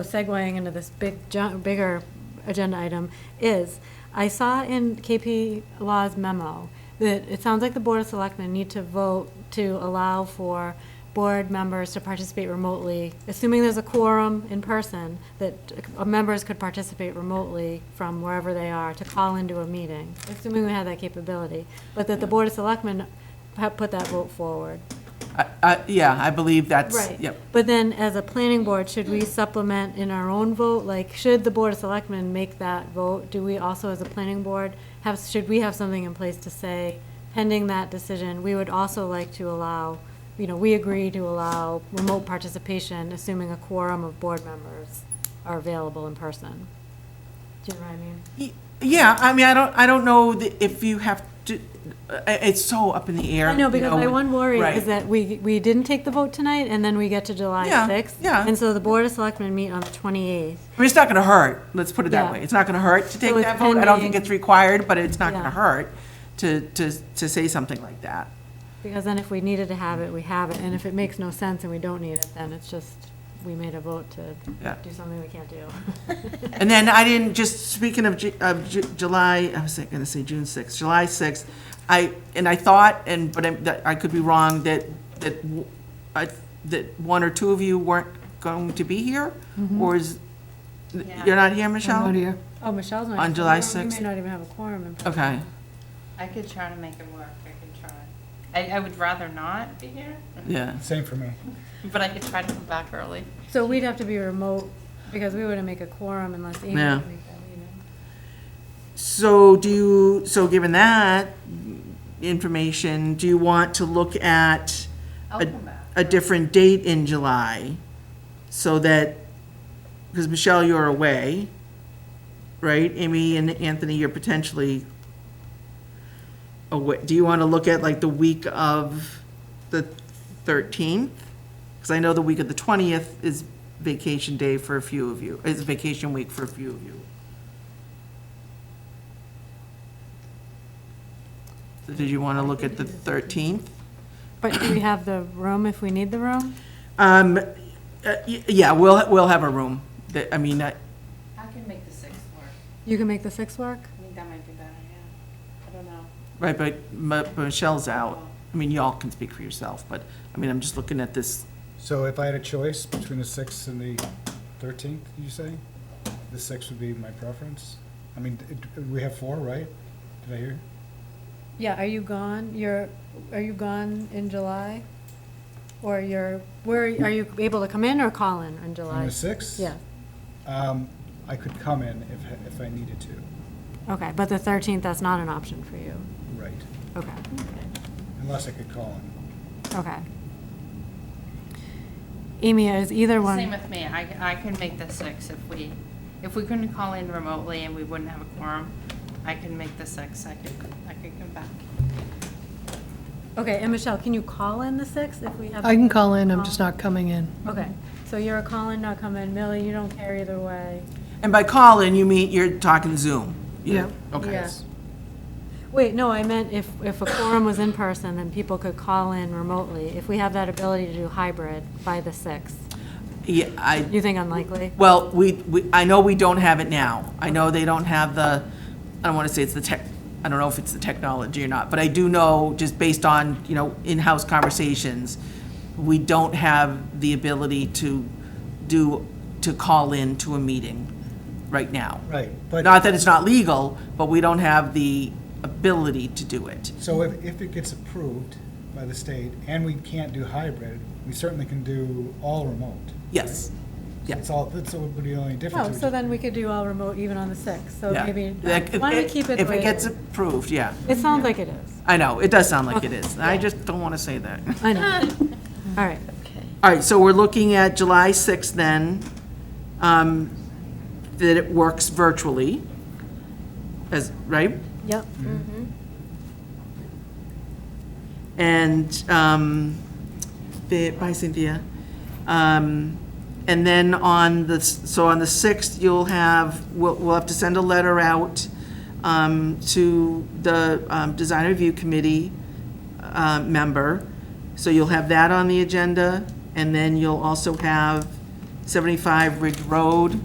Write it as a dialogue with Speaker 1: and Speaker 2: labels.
Speaker 1: segueing into this big, ju- bigger agenda item is, I saw in KP Law's memo that it sounds like the Board of Selectmen need to vote to allow for board members to participate remotely, assuming there's a quorum in person, that uh, members could participate remotely from wherever they are to call into a meeting, assuming we had that capability, but that the Board of Selectmen have put that vote forward.
Speaker 2: I- I- Yeah, I believe that's,
Speaker 1: Right.
Speaker 2: yep.
Speaker 1: But then, as a planning board, should we supplement in our own vote? Like, should the Board of Selectmen make that vote? Do we also, as a planning board, have, should we have something in place to say, pending that decision, we would also like to allow, you know, we agree to allow remote participation, assuming a quorum of board members are available in person? Do you know what I mean?
Speaker 2: Y- Yeah, I mean, I don't, I don't know th- if you have to, uh, it's so up in the air.
Speaker 1: I know,
Speaker 2: you
Speaker 1: because my one worry is
Speaker 2: right.
Speaker 1: that we, we didn't take the vote tonight, and then we get to July
Speaker 2: Yeah,
Speaker 1: 6th.
Speaker 2: yeah.
Speaker 1: And so the Board of Selectmen meet on the 28th.
Speaker 2: I mean, It's not going to hurt, let's put it
Speaker 1: Yeah.
Speaker 2: that way. It's not going to hurt to take
Speaker 1: it's
Speaker 2: that vote. I don't think
Speaker 1: pending.
Speaker 2: it's required, but it's not going
Speaker 1: Yeah.
Speaker 2: to hurt to, to, to say something like that.
Speaker 1: Because then if we needed to have it, we have it, and if it makes no sense and we don't need it, then it's just, we made a vote to
Speaker 2: Yeah.
Speaker 1: do something we can't do.
Speaker 2: And then I didn't, just speaking of Ju- of Ju- July, I was going to say June 6th, July 6th, I, and I thought, and, but I, that I could be wrong, that, that, w- I- that one or two of you weren't going to be here? Or is, you're not here, Michelle?
Speaker 3: here.
Speaker 1: Oh, Michelle's not.
Speaker 2: On July 6th.
Speaker 1: We may not even have a quorum in person.
Speaker 2: Okay,
Speaker 4: I could try to make it work, I could try. I, I would rather not be here,
Speaker 2: yeah.
Speaker 5: Same for me.
Speaker 4: but I could try to come back early.
Speaker 1: So we'd have to be remote, because we wouldn't make a quorum unless Amy could
Speaker 2: Yeah.
Speaker 1: make that meeting.
Speaker 2: So do you, so given that information, do you want to look at
Speaker 4: I'll
Speaker 2: a-
Speaker 4: come back.
Speaker 2: a different date in July? So that, because Michelle, you're away, right? Amy and Anthony, you're potentially away. Do you want to look at like the week of the 13th? Because I know the week of the 20th is vacation day for a few of you, is vacation week for a few of you. So did you want to look at the 13th?
Speaker 1: But do we have the room if we need the room?
Speaker 2: Um, uh, y- yeah, we'll, we'll have a room. That, I mean, I-
Speaker 4: I can make the sixth work.
Speaker 1: You can make the 6th work?
Speaker 4: I think that might be better, yeah. I don't know.
Speaker 2: right, but M- Michelle's out. I mean, y'all can speak for yourself, but, I mean, I'm just looking at this.
Speaker 5: So if I had a choice between the 6th and the 13th, you say? The 6th would be my preference? I mean, it- we have four, right? Did I hear?
Speaker 1: Yeah, are you gone? You're, are you gone in July? Or you're, where, are you able to come in or call in on July?
Speaker 5: On the 6th?
Speaker 1: Yeah,
Speaker 5: Um, I could come in if, if I needed to,
Speaker 1: okay, but the 13th, that's not an option for you?
Speaker 5: right?
Speaker 1: Okay.
Speaker 5: Unless I could call in.
Speaker 1: Okay. Amy, is either
Speaker 4: Same
Speaker 1: one,
Speaker 4: with me, I, I can make the sixth if we, if we couldn't call in remotely and we wouldn't have a quorum, I can make the sixth, I could, I could come back.
Speaker 1: okay, and Michelle, can you call in the 6th if we have?
Speaker 3: I can call in, I'm just not coming in.
Speaker 1: Okay, so you're a call in, not come in. Millie, you don't care either way.
Speaker 2: And by call-in, you mean, you're talking Zoom?
Speaker 3: Yeah.
Speaker 2: Okay.
Speaker 1: Yeah. Wait, no, I meant if, if a forum was in person, then people could call in remotely. If we have that ability to do hybrid by the 6th,
Speaker 2: Yeah, I,
Speaker 1: you think unlikely?
Speaker 2: well, we, we, I know we don't have it now. I know they don't have the, I don't want to say it's the tech, I don't know if it's the technology or not, but I do know, just based on, you know, in-house conversations, we don't have the ability to do, to call in to a meeting right now.
Speaker 5: Right, but,
Speaker 2: Not that it's not legal, but we don't have the ability to do it.
Speaker 5: so if, if it gets approved by the state and we can't do hybrid, we certainly can do all remote.
Speaker 2: Yes. Yeah.
Speaker 5: It's all, that's what would be the only difference.
Speaker 1: Oh,
Speaker 5: It would
Speaker 1: so
Speaker 5: just-
Speaker 1: then we could do all remote even on the 6th, so
Speaker 2: Yeah.
Speaker 1: maybe,
Speaker 2: Like,
Speaker 1: why don't we keep it the
Speaker 2: If
Speaker 1: way
Speaker 2: it
Speaker 1: it
Speaker 2: gets
Speaker 1: is?
Speaker 2: approved, yeah.
Speaker 1: It sounds like it is.
Speaker 2: I know, it does sound like it is. I just don't want to say that.
Speaker 1: I know. All right.
Speaker 2: All right, so we're looking at July 6th then, um, that it works virtually, as, right?
Speaker 1: Yep.
Speaker 2: And, um, the, by Cynthia. Um, and then on the, s- so on the 6th, you'll have, we'll, we'll have to send a letter out, um, to the, um, Design Review Committee, uh, member. So you'll have that on the agenda, and then you'll also have 75 Ridge Road.